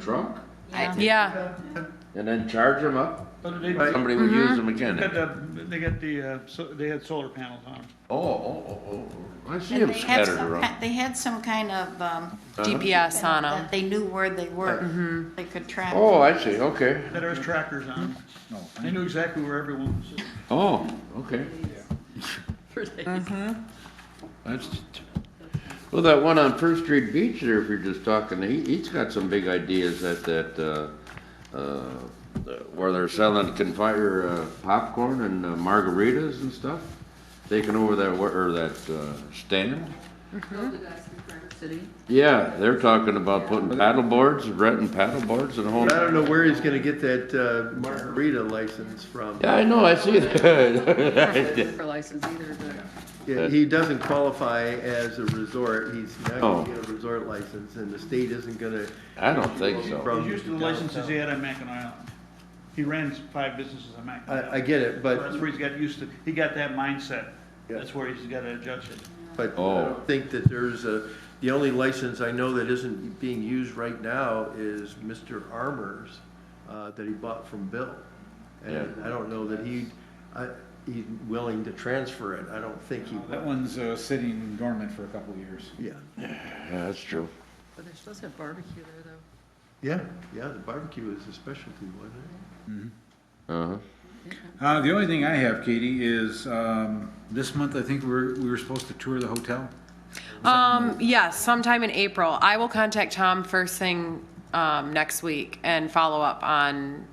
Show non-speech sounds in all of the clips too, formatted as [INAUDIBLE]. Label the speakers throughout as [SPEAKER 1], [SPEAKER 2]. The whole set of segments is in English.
[SPEAKER 1] trunk
[SPEAKER 2] I-
[SPEAKER 3] Yeah,
[SPEAKER 1] and then charge them up.
[SPEAKER 4] But they, they
[SPEAKER 1] Somebody would use them
[SPEAKER 4] got
[SPEAKER 1] again.
[SPEAKER 4] the, they got the, uh, so, they had solar panels on them.
[SPEAKER 1] Oh, oh, oh, oh, oh. I see
[SPEAKER 2] And
[SPEAKER 1] them
[SPEAKER 2] they had
[SPEAKER 1] scattered
[SPEAKER 2] some, ki-
[SPEAKER 1] around.
[SPEAKER 2] they had some kind of, um,
[SPEAKER 4] Uh-huh.
[SPEAKER 3] GPS on them.
[SPEAKER 2] that they knew where they were. They could track.
[SPEAKER 1] Oh, I see, okay.
[SPEAKER 4] That has trackers on them. They knew exactly where everyone was.
[SPEAKER 1] Oh, okay. That's, well, that one on First Street Beach there, if you're just talking, he, he's got some big ideas at that, uh, uh, where they're selling confire, uh, popcorn and uh, margaritas and stuff. Taking over that, wa- or that, uh, stand.
[SPEAKER 5] Those are guys from Park City.
[SPEAKER 1] Yeah, they're talking about putting paddle boards, renting paddle boards and a whole.
[SPEAKER 6] But I don't know where he's gonna get that uh, margarita license from.
[SPEAKER 1] Yeah, I know, I see that. [LAUGHS]
[SPEAKER 5] For license either, but
[SPEAKER 6] Yeah, He doesn't qualify as a resort, he's not
[SPEAKER 1] Oh.
[SPEAKER 6] gonna get a resort license, and the state isn't gonna,
[SPEAKER 1] I don't think so.
[SPEAKER 4] He's used to the licenses he had on Mackinac Island. He ran five businesses on Mackinac.
[SPEAKER 6] I, I
[SPEAKER 4] Island.
[SPEAKER 6] get it,
[SPEAKER 4] That's
[SPEAKER 6] but,
[SPEAKER 4] where he's got used to, he got that mindset.
[SPEAKER 6] Yeah.
[SPEAKER 4] That's where he's gotta adjust it.
[SPEAKER 6] but I
[SPEAKER 1] Oh.
[SPEAKER 6] don't think that there's a, the only license I know that isn't being used right now is Mr. Armour's, uh, that he bought from Bill. And
[SPEAKER 1] Yeah.
[SPEAKER 6] I don't know that he, I, he's willing to transfer it, I don't think he,
[SPEAKER 7] That one's uh, sitting dormant for a couple of years.
[SPEAKER 6] yeah.
[SPEAKER 1] Yeah, that's true.
[SPEAKER 5] but they're supposed to have barbecue there though.
[SPEAKER 6] Yeah, yeah, the barbecue is a specialty, wasn't it?
[SPEAKER 1] Uh-huh.
[SPEAKER 7] Uh, the only thing I have, Katie, is um, this month I think we were, we were supposed to tour the hotel.
[SPEAKER 3] um, yeah, sometime in April. I will contact Tom first thing, um, next week and follow up on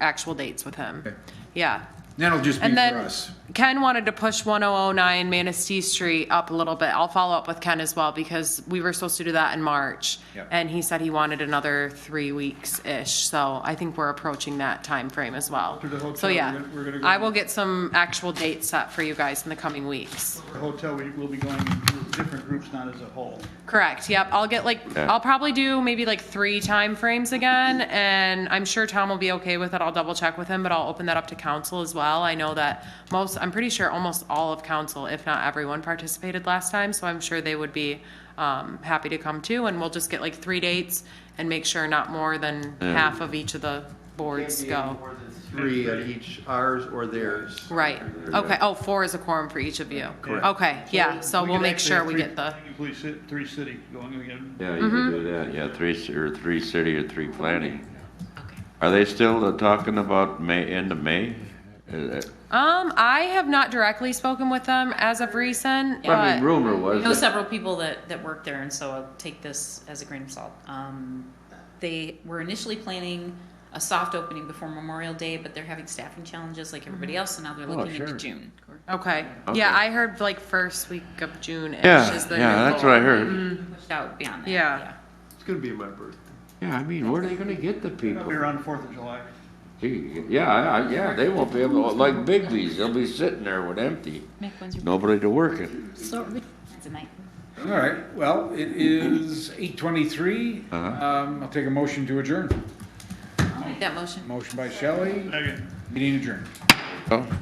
[SPEAKER 3] actual dates with him.
[SPEAKER 7] Okay.
[SPEAKER 3] Yeah.
[SPEAKER 7] That'll just be
[SPEAKER 3] And
[SPEAKER 7] for
[SPEAKER 3] then
[SPEAKER 7] us.
[SPEAKER 3] Ken wanted to push one oh oh nine Manistee Street up a little bit. I'll follow up with Ken as well because we were supposed to do that in March.
[SPEAKER 7] Yep.
[SPEAKER 3] And he said he wanted another three weeks-ish, so I think we're approaching that time frame as well.
[SPEAKER 4] To the hotel,
[SPEAKER 3] So,
[SPEAKER 4] we're
[SPEAKER 3] yeah,
[SPEAKER 4] gonna- we're gonna go-
[SPEAKER 3] I will get some actual dates set for you guys in the coming weeks.
[SPEAKER 4] The hotel, we will be going in different groups, not as a whole.
[SPEAKER 3] Correct, yep, I'll get like,
[SPEAKER 1] Yeah.
[SPEAKER 3] I'll probably do maybe like three time frames again, and I'm sure Tom will be okay with it, I'll double check with him, but I'll open that up to council as well, I know that most, I'm pretty sure almost all of council, if not everyone, participated last time, so I'm sure they would be, um, happy to come too, and we'll just get like three dates and make sure not more than half of each of the boards go.
[SPEAKER 6] three at each, ours or theirs.
[SPEAKER 3] Right, okay, oh, four is a quorum for each of you,
[SPEAKER 4] Correct.
[SPEAKER 3] okay, yeah, so
[SPEAKER 4] We
[SPEAKER 3] we'll
[SPEAKER 4] could
[SPEAKER 3] make
[SPEAKER 4] actually
[SPEAKER 3] sure
[SPEAKER 4] have
[SPEAKER 3] we
[SPEAKER 4] three-
[SPEAKER 3] get the,
[SPEAKER 4] Three ci- three city going again.
[SPEAKER 1] Yeah,
[SPEAKER 3] Mm-hmm.
[SPEAKER 1] you can do that, yeah, three, ci- or three city or three planning. Are they still uh, talking about May, end of May? Uh,
[SPEAKER 3] um, I have not directly spoken with them as of recent, but.
[SPEAKER 1] I mean, rumor
[SPEAKER 8] I know
[SPEAKER 1] was, that-
[SPEAKER 8] several people that, that work there, and so I'll take this as a grain of salt. Um, they were initially planning a soft opening before Memorial Day, but they're having staffing challenges like everybody else, and now they're looking
[SPEAKER 1] sure.
[SPEAKER 8] into June.
[SPEAKER 3] Okay.
[SPEAKER 1] Okay.
[SPEAKER 3] Yeah, I heard like first week of June.
[SPEAKER 1] yeah,
[SPEAKER 3] is the new Mm-hmm.
[SPEAKER 1] yeah, that's
[SPEAKER 3] goal.
[SPEAKER 1] what I heard.
[SPEAKER 8] Pushed out beyond that.
[SPEAKER 3] Yeah.
[SPEAKER 6] It's gonna be my birthday.
[SPEAKER 1] Yeah, I mean, where are they gonna get the
[SPEAKER 4] It'll be
[SPEAKER 1] people?
[SPEAKER 4] around the Fourth of July.
[SPEAKER 1] Gee, Yeah, I, I- yeah, they won't be able, to like Bigby's, they'll be sitting there with empty,
[SPEAKER 8] Mick, when's your
[SPEAKER 1] nobody to work it.
[SPEAKER 8] Sorry. Tonight.
[SPEAKER 7] All right, well, it is 8:23.
[SPEAKER 1] Uh-huh.
[SPEAKER 7] Um, I'll take a motion to adjourn.
[SPEAKER 8] I'll make that motion.
[SPEAKER 7] Motion by Shelley,
[SPEAKER 4] Again.
[SPEAKER 7] meeting adjourned.
[SPEAKER 1] Oh.